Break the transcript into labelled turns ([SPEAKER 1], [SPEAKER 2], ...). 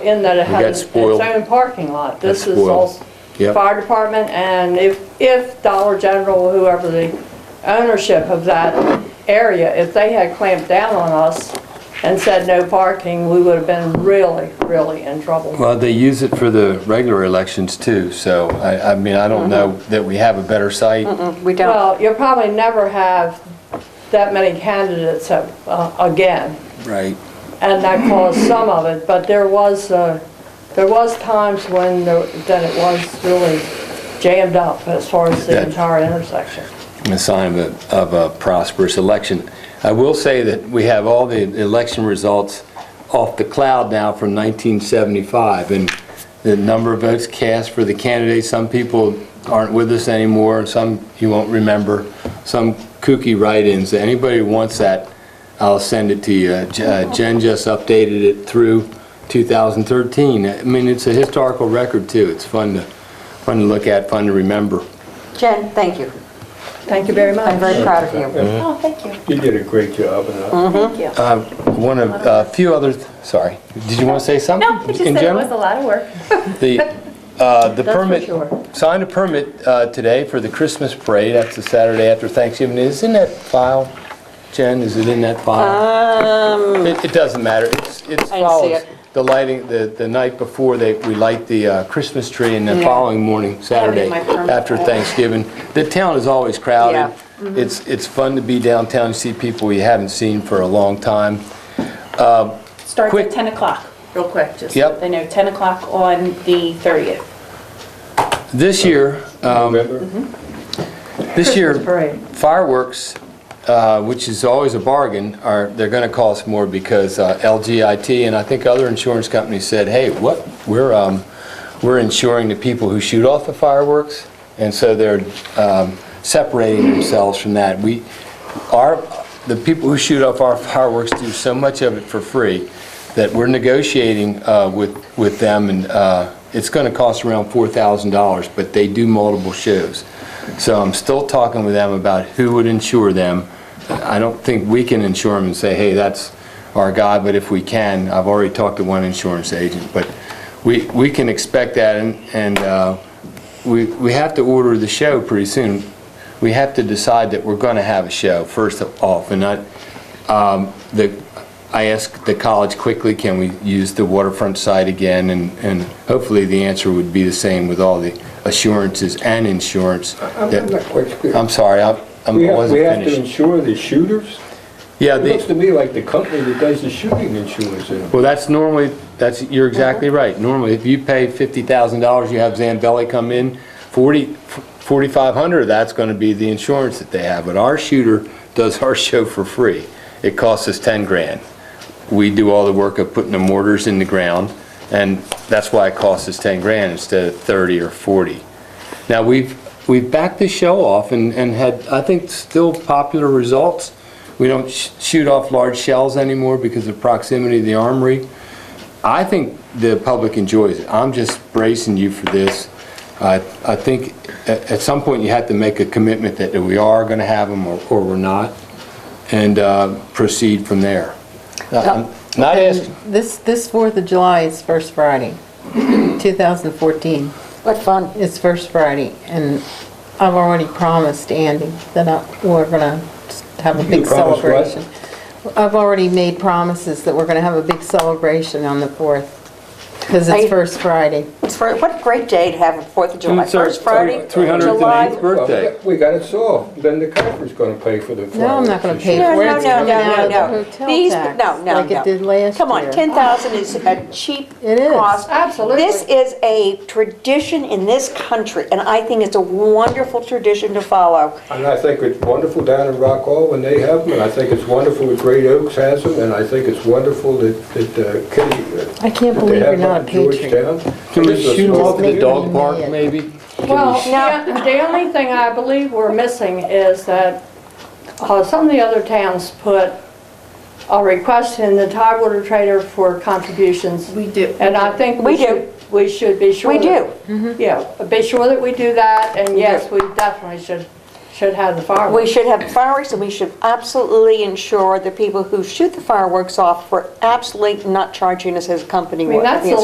[SPEAKER 1] in that it
[SPEAKER 2] We got
[SPEAKER 1] has its
[SPEAKER 2] spoiled.
[SPEAKER 1] own parking lot. This
[SPEAKER 2] Got
[SPEAKER 1] is all
[SPEAKER 2] spoiled. Yep.
[SPEAKER 1] fire department, and if, if Dollar General, whoever the ownership of that area, if they had clamped down on us and said no parking, we would have been really, really in trouble.
[SPEAKER 2] Well, they use it for the regular elections too, so I, I mean, I don't know that we have a better site.
[SPEAKER 3] We don't,
[SPEAKER 1] Well, you'll probably never have that many candidates uh, again.
[SPEAKER 2] Right.
[SPEAKER 1] and that caused some of it, but there was, uh, there was times when there- that it was really jammed up as far as the
[SPEAKER 2] That-
[SPEAKER 1] entire intersection.
[SPEAKER 2] A sign of a, of a prosperous election. I will say that we have all the election results off the cloud now from 1975, and the number of votes cast for the candidates, some people aren't with us anymore, and some you won't remember, some kooky write-ins. Anybody who wants that, I'll send it to you. Uh, J- uh, Jen just updated it through 2013. I mean, it's a historical record, too. It's fun to, fun to look at, fun to remember.
[SPEAKER 3] Jen, thank you.
[SPEAKER 1] Thank you very much.
[SPEAKER 3] I'm very proud of you.
[SPEAKER 4] Oh, thank you,
[SPEAKER 5] You did a great job, and I-
[SPEAKER 4] thank you.
[SPEAKER 2] Uh,
[SPEAKER 4] Mm-hmm.
[SPEAKER 2] One of, a few other, th- sorry, did you want to say something?
[SPEAKER 4] No, I just
[SPEAKER 2] in
[SPEAKER 4] said it
[SPEAKER 2] general?
[SPEAKER 4] was a lot of work.
[SPEAKER 2] The, uh, the
[SPEAKER 1] That's for
[SPEAKER 2] permit,
[SPEAKER 1] sure.
[SPEAKER 2] signed a permit uh, today for the Christmas parade, that's the Saturday after Thanksgiving. Is in that file, Jen, is it in that file? It it doesn't matter, it's, it
[SPEAKER 3] see
[SPEAKER 2] follows
[SPEAKER 3] it.
[SPEAKER 2] the lighting, the, the night before, they, we light the uh, Christmas tree, and the
[SPEAKER 3] Yeah.
[SPEAKER 2] following morning, Saturday,
[SPEAKER 3] my permit.
[SPEAKER 2] after Thanksgiving. The town is always
[SPEAKER 3] Yeah.
[SPEAKER 2] crowded. It's, it's fun to be downtown, you see people you haven't seen for a long time. Uh,
[SPEAKER 4] Starts
[SPEAKER 2] Quick.
[SPEAKER 4] at 10 o'clock, real quick, just so
[SPEAKER 2] Yep.
[SPEAKER 4] they know, 10 o'clock on the 30th.
[SPEAKER 2] This year, um,
[SPEAKER 5] remember?
[SPEAKER 2] This year,
[SPEAKER 1] Mm-hmm. Christmas parade.
[SPEAKER 2] fireworks, uh, which is always a bargain, are, they're going to cost more because uh, LGIT and I think other insurance companies said, hey, what, we're, um, we're insuring the people who shoot off the fireworks, and so they're um, separating themselves from that. We, our, the people who shoot off our fireworks do so much of it for free that we're negotiating uh, with, with them, and uh, it's going to cost around $4,000, but they do multiple shows. So I'm still talking with them about who would insure them. I don't think we can insure them and say, hey, that's our guy, but if we can, I've already talked to one insurance agent, but we, we can expect that, and, and uh, we, we have to order the show pretty soon. We have to decide that we're going to have a show first off, and I, um, the, I asked the college quickly, can we use the waterfront site again? And, and hopefully the answer would be the same with all the assurances and insurance.
[SPEAKER 5] I'm I'm not
[SPEAKER 2] that-
[SPEAKER 5] quite clear.
[SPEAKER 2] I'm sorry, I I'm-
[SPEAKER 5] We
[SPEAKER 2] I
[SPEAKER 5] have,
[SPEAKER 2] wasn't
[SPEAKER 5] we have to
[SPEAKER 2] finished.
[SPEAKER 5] insure the shooters?
[SPEAKER 2] Yeah,
[SPEAKER 5] It
[SPEAKER 2] the-
[SPEAKER 5] looks to me like the company that does the shooting insures them.
[SPEAKER 2] Well, that's normally, that's, you're exactly right. Normally, if you pay $50,000, you have Zambelli come in, 40, 4,500 of that's going to be the insurance that they have. But our shooter does our show for free. It costs us 10 grand. We do all the work of putting the mortars in the ground, and that's why it costs us 10 grand instead of 30 or 40. Now, we've, we've backed the show off and, and had, I think, still popular results. We don't sh- shoot off large shells anymore because of proximity to the armory. I think the public enjoys it. I'm just bracing you for this. I, I think at, at some point you have to make a commitment that we are gonna have them or, or we're not, and, uh, proceed from there. I'm Not asking,
[SPEAKER 6] This, this Fourth of July is First Friday, 2014.
[SPEAKER 3] What fun.
[SPEAKER 6] It's First Friday, and I've already promised Andy that I, we're gonna have a
[SPEAKER 5] You
[SPEAKER 6] big
[SPEAKER 5] promised what?
[SPEAKER 6] celebration. I've already made promises that we're gonna have a big celebration on the Fourth, because
[SPEAKER 3] Are you-
[SPEAKER 6] it's First Friday.
[SPEAKER 3] It's for, what a great day to have a Fourth of July,
[SPEAKER 2] It's our-
[SPEAKER 3] first Friday,
[SPEAKER 2] it's our 308th
[SPEAKER 3] July.
[SPEAKER 2] birthday.
[SPEAKER 5] Well, We got it solved, then the company's gonna pay for the fireworks.
[SPEAKER 6] No, I'm not gonna
[SPEAKER 5] and
[SPEAKER 6] pay
[SPEAKER 5] shooting.
[SPEAKER 3] No,
[SPEAKER 6] for
[SPEAKER 3] no,
[SPEAKER 6] it, it's
[SPEAKER 3] no,
[SPEAKER 6] coming out
[SPEAKER 3] no,
[SPEAKER 6] of the
[SPEAKER 3] no.
[SPEAKER 6] hotel
[SPEAKER 3] These,
[SPEAKER 6] tax,
[SPEAKER 3] no, no, no.
[SPEAKER 6] like it did last
[SPEAKER 3] Come on,
[SPEAKER 6] year.
[SPEAKER 3] 10,000 is a cheap
[SPEAKER 6] It is.
[SPEAKER 3] cost.
[SPEAKER 1] Absolutely.
[SPEAKER 3] This is a tradition in this country, and I think it's a wonderful tradition to follow.
[SPEAKER 5] And I think it's wonderful down in Rockall when they have them, and I think it's wonderful that Great Oaks has them, and I think it's wonderful that, that uh, Kitty.
[SPEAKER 6] I can't believe you're not a patriot.
[SPEAKER 2] can we shoot them off at the
[SPEAKER 6] dog
[SPEAKER 2] dog
[SPEAKER 6] Maybe. park,
[SPEAKER 2] park, maybe?
[SPEAKER 1] Well, the the only thing I believe we're missing is that uh, some of the other towns put a request in the Tidewater Trader for contributions.
[SPEAKER 7] We do.
[SPEAKER 1] And I think
[SPEAKER 3] We
[SPEAKER 1] we
[SPEAKER 3] do.
[SPEAKER 1] should, we should be sure.
[SPEAKER 3] We
[SPEAKER 1] that- Yeah, be sure that we do that, and yes, we definitely should, should have the
[SPEAKER 3] We
[SPEAKER 1] fireworks.
[SPEAKER 3] should have fireworks, and we should absolutely ensure the people who shoot the fireworks off were absolutely not charging us as a company
[SPEAKER 1] I mean,
[SPEAKER 3] would. I
[SPEAKER 1] that's
[SPEAKER 3] think
[SPEAKER 1] the
[SPEAKER 3] it's